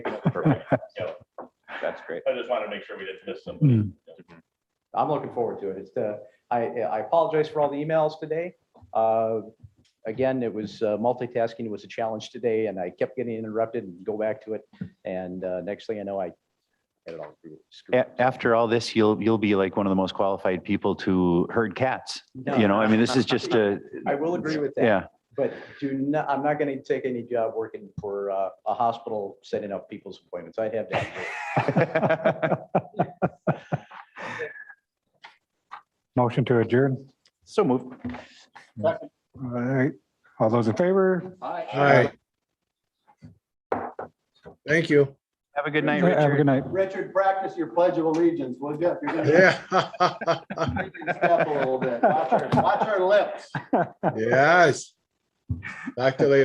Perfect. So That's great. I just wanted to make sure we didn't miss something. Mm. Hmm. I'm looking forward to it. It's, uh, I, I apologize for all the emails today. Uh, Again, it was uh, multitasking was a challenge today and I kept getting interrupted and go back to it. And uh, next thing I know, I had it all screwed- screwed. up. A- After all this, you'll, you'll be like one of the most qualified people to herd cats. You know, I mean, this is just a, I will agree with that. yeah, But do not, I'm not going to take any job working for uh, a hospital setting up people's appointments. I'd have that. Motion to adjourn. so moved. All right. All those in favor? All right. Thank you. Have a good night, Have a Richard. good night. Richard, practice your pledge of allegiance, will you? You're gonna Yeah. make me step a little bit. Watch our- watch our lips. Yes. Back to later.